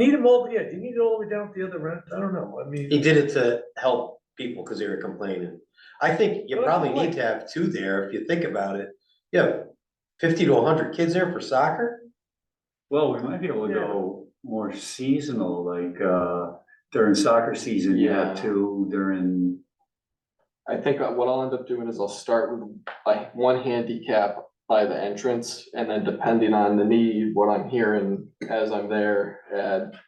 You need them all, yeah, you need it all the way down to the other end, I don't know, I mean. He did it to help people because they were complaining. I think you Well, probably that's need to have two there if you think about it. You have fifty to hundred kids there for soccer? Well, we might be able to Yeah. go more seasonal, like, uh, during soccer season, you have Yeah. two during, I think what I'll end up doing is I'll start with like one handicap by the entrance and then depending on the need, what I'm hearing as I'm there, add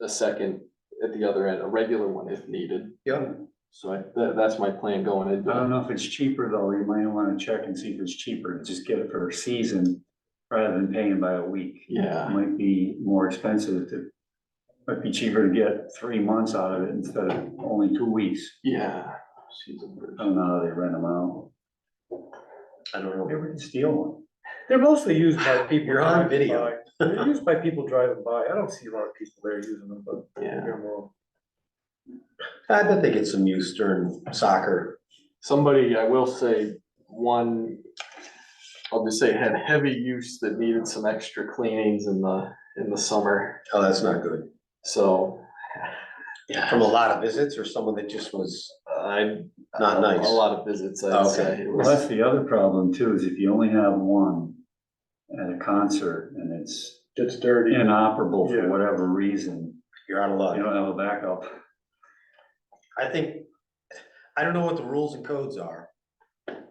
a second at the other end, a regular one if needed. Yeah. So I, tha- that's my plan going I don't into know if it's cheaper though, you might wanna check and see if it's cheaper, to just get it for a season rather than paying by a week. It Yeah, might be more expensive to, might be cheaper to get three months out of it instead of only two weeks. yeah. Season bridge. I don't know how they rent them out. I don't Maybe know. we can steal one. They're mostly used by people. You're on driving video. by. They're used by people driving by, I don't see a lot of people there using them, but. Yeah. they're more- I bet they get some use during soccer. Somebody, I will say, one, I'll just say had heavy use that needed some extra cleanings in the, in the summer, Oh, that's not good. so. Yeah. From a lot of visits or someone that just was, I. Not a- nice. A lot of visits, I'd Okay. say. It was- Well, that's the other problem too, is if you only have one at a concert and it's It's dirty. inoperable Yeah. for whatever reason, you're out of luck. you don't have a backup. I think, I don't know what the rules and codes are,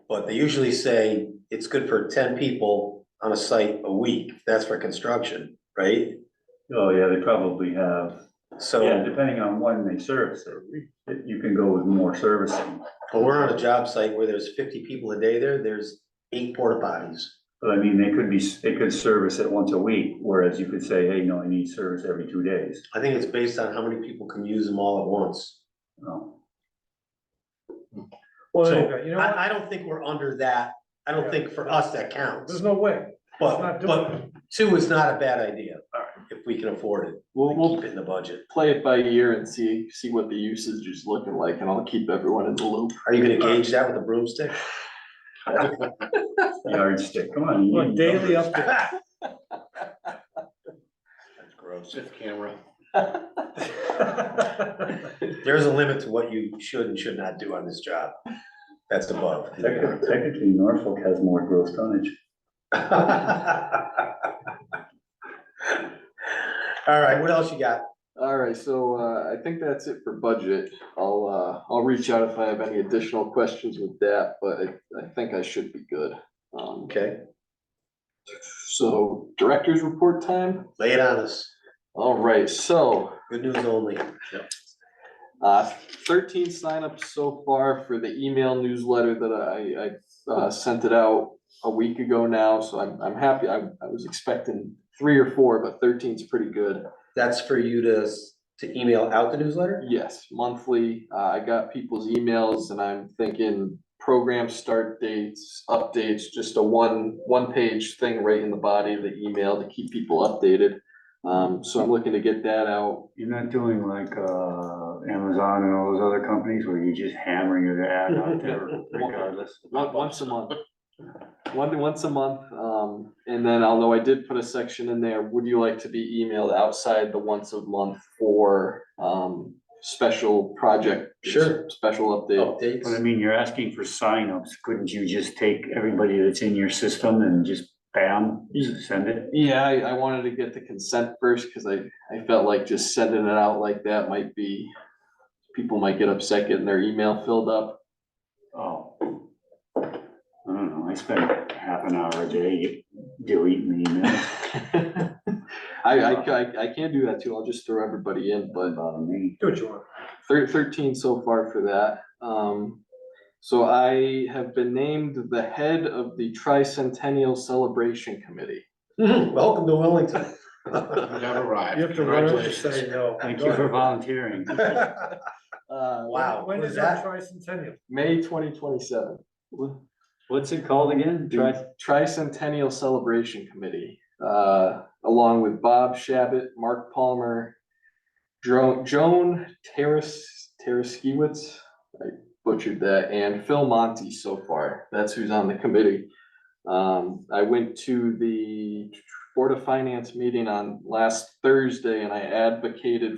but they usually say it's good for ten people on a site a week. That's for construction, right? Oh, yeah, they probably have, yeah, So, depending on when they service it, it- you can go with more servicing. but we're on a job site where there's fifty people a day there, there's eight porta potties. But I mean, they could be, they could service it once a week, whereas you could say, hey, no, I need service every two days. I think it's based on how many people can use them all at once. Oh, Well, So, anyway, you know what, I, I don't think we're under that. I don't think for us that counts, there's no way, it's but, not but doing. two is not a bad idea. If we can afford it, We'll, and we'll keep it in the budget. play it by ear and see, see what the usage is looking like and I'll keep everyone in the loop. Are you gonna gauge that with a broomstick? yardstick, come on. you Like need daily numbers. update. That's gross. camera. There's a limit to what you should and should not do on this job. That's above. Technically- Technically, Norfolk has more gross tonnage. All right, what else you got? Alright, so, uh, I think that's it for budget. I'll, uh, I'll reach out if I have any additional questions with that, but I, I think I should be good. Um, Okay, so director's report time? lay it on us. Alright, so, Good news only. Uh, thirteen signups so far for the email newsletter that I, I, uh, sent it out a week ago now, so I'm, I'm happy. I, I was expecting three or four, but thirteen's pretty good. That's for you to, s- to email out the newsletter? Yes, monthly. Uh, I got people's emails and I'm thinking program start dates, updates, just a one, one-page thing right in the body of the email to keep people updated. Um, so I'm looking to get that out You're not doing like uh Amazon and all those other companies where you're just hammering your ad out there regardless. Once, once a month. One, once a month, um, and then although I did put a section in there, would you like to be emailed outside the once a month for, um, special project? Sure. Oh. Special update, But I Updates? mean, you're asking for signups. Couldn't you just take everybody that's in your system and just bam, send it? yeah, I, I wanted to get the consent first, cause I, I felt like just sending it out like that might be. People might get upset getting their email filled up, Oh. I don't know. I spend half an hour a day deleting emails. I, I, I, I can't do that too, I'll just throw everybody in, but. Doesn't um, bother me. Do what you want. Thir- thirteen so far for that. Um, so I have been named the head of the tricentennial celebration committee. Welcome to Wellington. You have to run it to say no. Thank you for volunteering. Uh, Wow. When was is our that- tricentennial? May twenty twenty-seven. What's it called again? Tri- Tricentennial Celebration Committee, uh, along with Bob Shabbat, Mark Palmer, Dro- Joan Teres, Tereskiewicz, I butchered that, and Phil Monty so far. That's who's on the committee. Um, I went to the, Board of Finance meeting on last Thursday and I advocated